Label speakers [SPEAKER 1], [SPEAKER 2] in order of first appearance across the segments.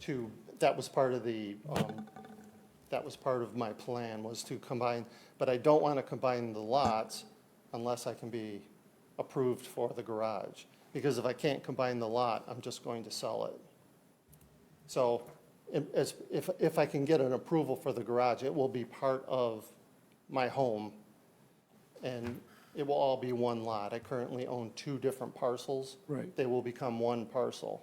[SPEAKER 1] to, that was part of the, um, that was part of my plan, was to combine, but I don't want to combine the lots unless I can be approved for the garage. Because if I can't combine the lot, I'm just going to sell it. So if, as- if, if I can get an approval for the garage, it will be part of my home. And it will all be one lot. I currently own two different parcels.
[SPEAKER 2] Right.
[SPEAKER 1] They will become one parcel.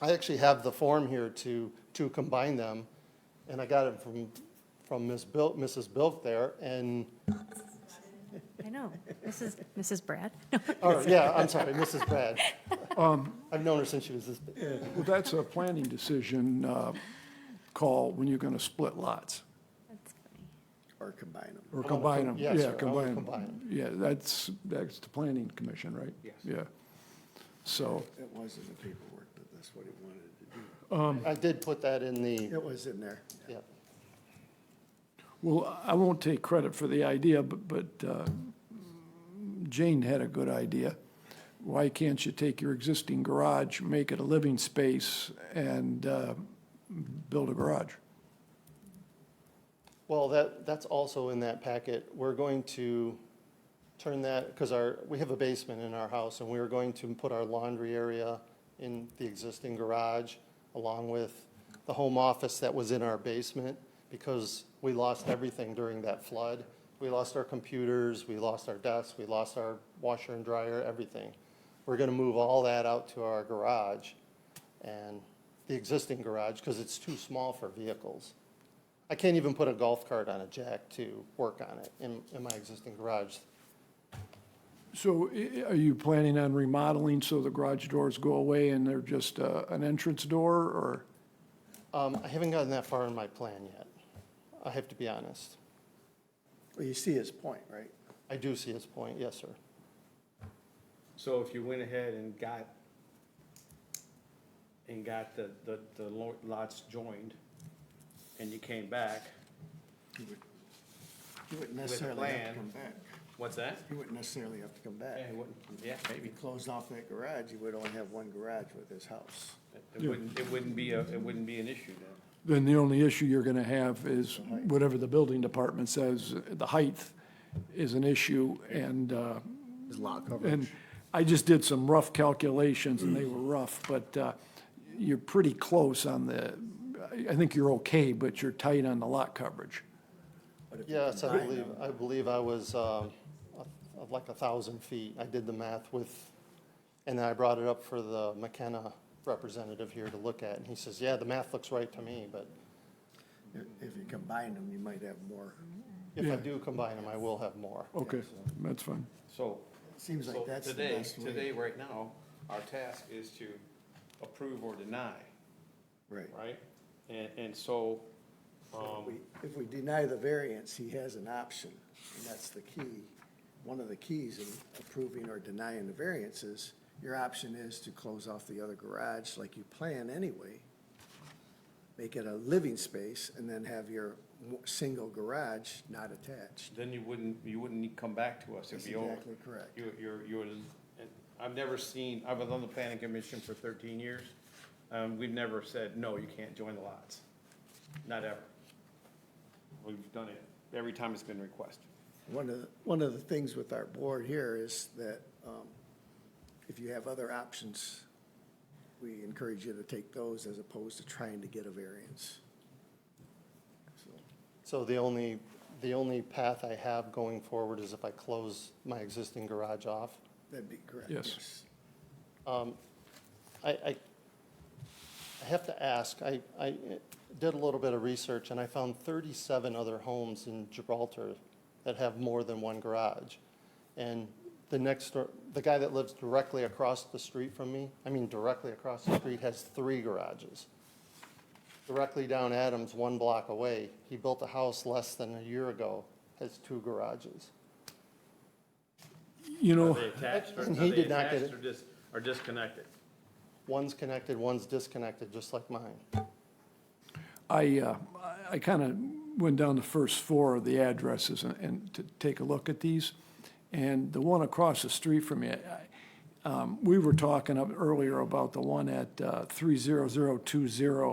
[SPEAKER 1] I actually have the form here to, to combine them, and I got it from, from Ms. Bil, Mrs. Bilk there, and,
[SPEAKER 3] I know. Mrs. Mrs. Brad? No,
[SPEAKER 1] or, yeah, I'm sorry, Mrs. Brad. I've known her since she was this big.
[SPEAKER 2] Well, that's a planning decision uh, call when you're going to split lots
[SPEAKER 3] that's funny.
[SPEAKER 4] or combine them.
[SPEAKER 2] or
[SPEAKER 1] wanna
[SPEAKER 2] combine
[SPEAKER 1] Oh, com-
[SPEAKER 2] them.
[SPEAKER 1] yes, sir, I
[SPEAKER 2] Yeah,
[SPEAKER 1] wanna
[SPEAKER 2] combine 'em.
[SPEAKER 1] combine 'em.
[SPEAKER 2] Yeah, that's, that's the planning commission, right? Yes. Yeah. So,
[SPEAKER 4] It was in the paperwork, but that's what he wanted to
[SPEAKER 1] I did put that in
[SPEAKER 4] do.
[SPEAKER 1] the,
[SPEAKER 4] It was in there.
[SPEAKER 1] yeah,
[SPEAKER 2] well, I won't take credit for the idea, but, but uh, Jane had a good idea. Why can't you take your existing garage, make it a living space, and uh, build a garage?
[SPEAKER 1] well, that, that's also in that packet. We're going to turn that, because our, we have a basement in our house, and we are going to put our laundry area in the existing garage, along with the home office that was in our basement, because we lost everything during that flood. We lost our computers, we lost our desks, we lost our washer and dryer, everything. We're gonna move all that out to our garage, and the existing garage, because it's too small for vehicles. I can't even put a golf cart on a jack to work on it in, in my existing garage.
[SPEAKER 2] So i- i- are you planning on remodeling so the garage doors go away and they're just uh, an entrance door or?
[SPEAKER 1] Um, I haven't gotten that far in my plan yet. I have to be honest.
[SPEAKER 4] Well, you see his point, right?
[SPEAKER 1] I do see his point, yes, sir.
[SPEAKER 5] So if you went ahead and got, and got the, the, the lo- lots joined, and you came back,
[SPEAKER 4] You wouldn't necessarily have to
[SPEAKER 5] plan.
[SPEAKER 4] come back.
[SPEAKER 5] what's that?
[SPEAKER 4] You wouldn't necessarily have to come
[SPEAKER 5] Yeah,
[SPEAKER 4] back.
[SPEAKER 5] it wouldn't, yeah,
[SPEAKER 4] If you
[SPEAKER 5] maybe,
[SPEAKER 4] closed off that garage, you would only have one garage with his house.
[SPEAKER 5] it wouldn't, it wouldn't be a, it wouldn't be an issue then.
[SPEAKER 2] Then the only issue you're going to have is whatever the building department says, the height is an issue and, uh,
[SPEAKER 4] His lot
[SPEAKER 2] and I just did some rough calculations and they were rough, but uh, you're pretty close on the, I I think you're okay, but you're tight on the lot coverage.
[SPEAKER 1] Yes, I believe, I believe I was, um, a- like a thousand feet. I did the math with, and then I brought it up for the McKenna representative here to look at, and he says, yeah, the math looks right to me, but
[SPEAKER 4] If you combine them, you might have more.
[SPEAKER 1] if I
[SPEAKER 2] Yeah.
[SPEAKER 1] do combine them, I will have more.
[SPEAKER 2] Okay, that's fine.
[SPEAKER 5] So.
[SPEAKER 4] Seems like
[SPEAKER 5] so
[SPEAKER 4] that's the
[SPEAKER 5] today-
[SPEAKER 4] best way.
[SPEAKER 5] Today, right now, our task is to approve or deny,
[SPEAKER 4] Right.
[SPEAKER 5] right? And, and so,
[SPEAKER 4] If
[SPEAKER 5] um,
[SPEAKER 4] we- If we deny the variance, he has an option, and that's the key. One of the keys in approving or denying the variance is, your option is to close off the other garage like you plan anyway, make it a living space, and then have your mo- single garage not attached.
[SPEAKER 5] then you wouldn't, you wouldn't need to come back to us, it'd
[SPEAKER 4] That's
[SPEAKER 5] be over.
[SPEAKER 4] exactly correct.
[SPEAKER 5] You're, you're, you're, and I've never seen, I was on the planning commission for thirteen years, um, we've never said, no, you can't join the lots, not ever. We've done it every time it's been requested.
[SPEAKER 4] One of, the- one of the things with our board here is that um, if you have other options, we encourage you to take those as opposed to trying to get a variance. So.
[SPEAKER 1] So the only, the only path I have going forward is if I close my existing garage off.
[SPEAKER 4] That'd be correct.
[SPEAKER 2] Yes.
[SPEAKER 1] Um, I, I, I have to ask, I, I did a little bit of research, and I found 37 other homes in Gibraltar that have more than one garage. And the next, door- the guy that lives directly across the street from me, I mean directly across the street, has three garages. Directly down Adams, one block away, he built a house less than a year ago, has two garages.
[SPEAKER 2] You know.
[SPEAKER 5] Are they attached, or are
[SPEAKER 1] And Oh. he
[SPEAKER 5] they
[SPEAKER 1] did not get
[SPEAKER 5] attached
[SPEAKER 1] it.
[SPEAKER 5] or dis, or disconnected?
[SPEAKER 1] One's connected, one's disconnected, just like mine.
[SPEAKER 2] I, uh, I kind of went down the first four of the addresses and, and to take a look at these. And the one across the street from me, I, um, we were talking up earlier about the one at, uh, three zero zero two zero